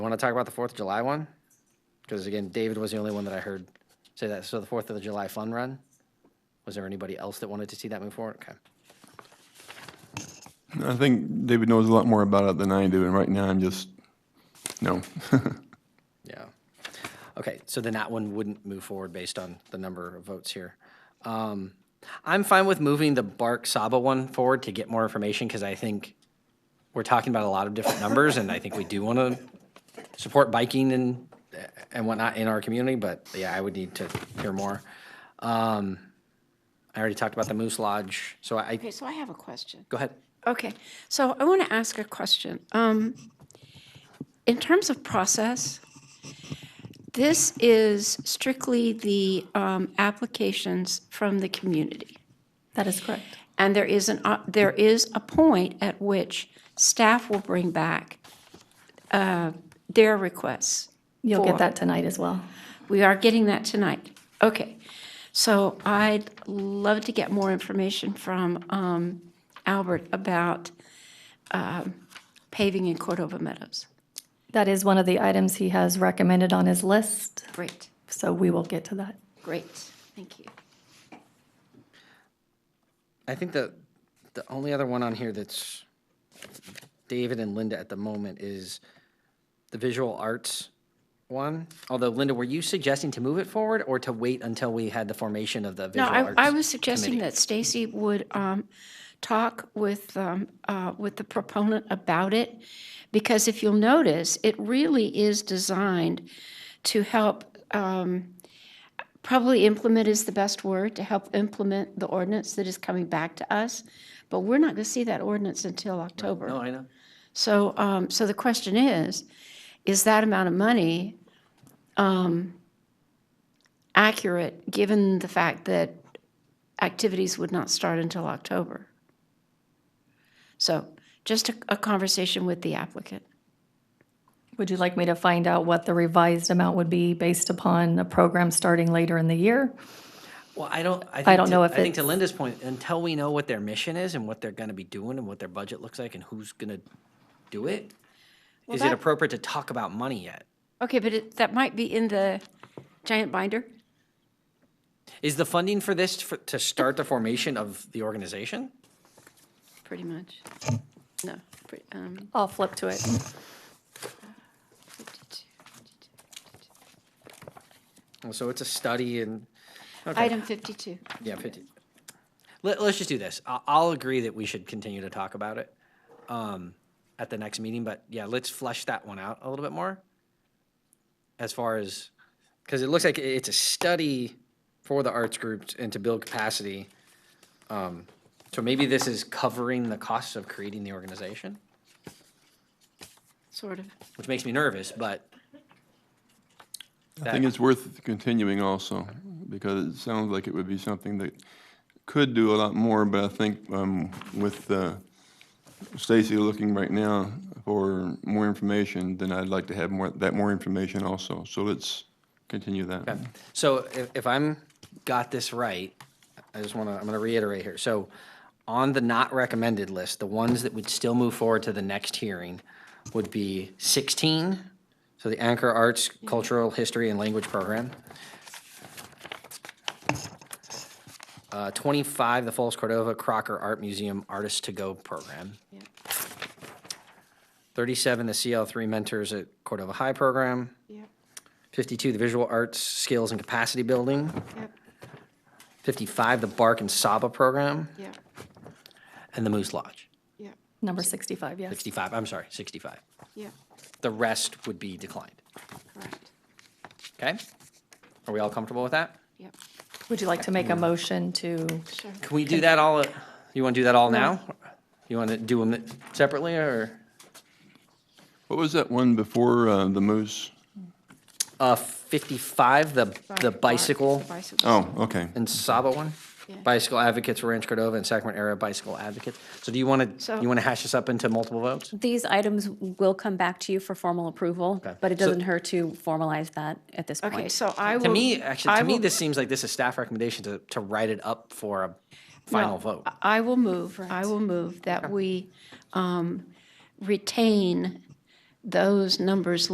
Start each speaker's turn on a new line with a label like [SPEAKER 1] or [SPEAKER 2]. [SPEAKER 1] Want to talk about the Fourth of July one? Because again, David was the only one that I heard say that. So the Fourth of the July Fun Run. Was there anybody else that wanted to see that move forward? Okay.
[SPEAKER 2] I think David knows a lot more about it than I do, and right now I'm just, no.
[SPEAKER 1] Yeah. Okay, so then that one wouldn't move forward based on the number of votes here. Um, I'm fine with moving the Bark Saba one forward to get more information, because I think we're talking about a lot of different numbers, and I think we do want to support biking and, and whatnot in our community, but yeah, I would need to hear more. Um, I already talked about the Moose Lodge, so I,
[SPEAKER 3] Okay, so I have a question.
[SPEAKER 1] go ahead.
[SPEAKER 3] Okay, so I want to ask a question. Um, In terms of process, this is strictly the um, applications from the community.
[SPEAKER 4] That is correct.
[SPEAKER 3] And there is an, uh, there is a point at which staff will bring back uh, their requests.
[SPEAKER 4] You'll
[SPEAKER 3] for-
[SPEAKER 4] get that tonight as well.
[SPEAKER 3] We are getting that tonight. Okay. So I'd love to get more information from um, Albert about um, paving in Cordova Meadows.
[SPEAKER 4] That is one of the items he has recommended on his list,
[SPEAKER 3] Great,
[SPEAKER 4] so we will get to that.
[SPEAKER 3] great. Thank you.
[SPEAKER 1] I think the, the only other one on here that's David and Linda at the moment is the visual arts one. Although Linda, were you suggesting to move it forward or to wait until we had the formation of the
[SPEAKER 3] No,
[SPEAKER 1] visual
[SPEAKER 3] I,
[SPEAKER 1] arts?
[SPEAKER 3] I was suggesting that Stacy would um, talk with, um, uh, with the proponent about it, because if you'll notice, it really is designed to help, um, probably implement is the best word, to help implement the ordinance that is coming back to us, but we're not going to see that ordinance until October.
[SPEAKER 1] No, I know.
[SPEAKER 3] So, um, so the question is, is that amount of money, um, accurate, given the fact that activities would not start until October? So just a, a conversation with the applicant.
[SPEAKER 4] Would you like me to find out what the revised amount would be based upon a program starting later in the year?
[SPEAKER 1] Well, I don't, I think,
[SPEAKER 4] don't
[SPEAKER 1] to-
[SPEAKER 4] know
[SPEAKER 1] I
[SPEAKER 4] if
[SPEAKER 1] think to
[SPEAKER 4] it's-
[SPEAKER 1] Linda's point, until we know what their mission is and what they're gonna be doing and what their budget looks like and who's gonna do it, is it
[SPEAKER 3] that-
[SPEAKER 1] appropriate to talk about money yet?
[SPEAKER 3] Okay, but it, that might be in the giant binder?
[SPEAKER 1] Is the funding for this for- to start the formation of the organization?
[SPEAKER 3] Pretty much. No, pretty, um,
[SPEAKER 4] I'll flip to it.
[SPEAKER 1] Well, So it's a study and. okay.
[SPEAKER 3] item fifty-two.
[SPEAKER 1] Yeah, fifty. Let, let's just do this. I'll, I'll agree that we should continue to talk about it, um, at the next meeting, but yeah, let's flesh that one out a little bit more. As far as, because it looks like i- it's a study for the arts groups and to build capacity. Um, so maybe this is covering the costs of creating the organization,
[SPEAKER 3] Sort of.
[SPEAKER 1] which makes me nervous, but
[SPEAKER 2] I think it's worth continuing also, because it sounds like it would be something that could do a lot more, but I think um, with uh, Stacy looking right now for more information, then I'd like to have more, that more information also. So let's continue that.
[SPEAKER 1] So if, if I'm, got this right, I just want to, I'm going to reiterate here. So on the not recommended list, the ones that would still move forward to the next hearing would be 16, so the Anchor Arts Cultural History and Language Program. Uh, 25, the Falls Cordova Crocker Art Museum Artist to Go Program. 37, the CL3 Mentors at Cordova High Program. 52, the Visual Arts Skills and Capacity Building. 55, the Bark and Saba Program,
[SPEAKER 3] Yeah,
[SPEAKER 1] and the Moose Lodge.
[SPEAKER 3] yeah,
[SPEAKER 4] Number 65, yes.
[SPEAKER 1] 65, I'm sorry, 65.
[SPEAKER 3] yeah,
[SPEAKER 1] The rest would be declined.
[SPEAKER 3] right,
[SPEAKER 1] Okay? Are we all comfortable with that?
[SPEAKER 3] yep,
[SPEAKER 4] Would you like to make a motion to,
[SPEAKER 3] sure.
[SPEAKER 1] Can we do that all, at- you want to do that all now? You want to do them separately, or?
[SPEAKER 2] What was that one before uh, the moose?
[SPEAKER 1] Uh, 55, the, the
[SPEAKER 3] Bark,
[SPEAKER 1] bicycle
[SPEAKER 3] the bicycle.
[SPEAKER 2] Oh, okay.
[SPEAKER 1] and Saba one?
[SPEAKER 3] Yeah.
[SPEAKER 1] Bicycle Advocates Ranch Cordova and Sacramento Area Bicycle Advocates. So do you want to,
[SPEAKER 3] So-
[SPEAKER 1] you want to hash this up into multiple votes?
[SPEAKER 5] These items will come back to you for formal approval,
[SPEAKER 1] Okay.
[SPEAKER 5] but it
[SPEAKER 1] So-
[SPEAKER 5] doesn't hurt to formalize that at this point.
[SPEAKER 3] Okay, so I will.
[SPEAKER 1] To me, actually,
[SPEAKER 3] I
[SPEAKER 1] to me,
[SPEAKER 3] will-
[SPEAKER 1] this seems like this is staff recommendation to, to write it up for a final
[SPEAKER 3] no,
[SPEAKER 1] vote.
[SPEAKER 3] I- I will move, I will move that we um, retain those numbers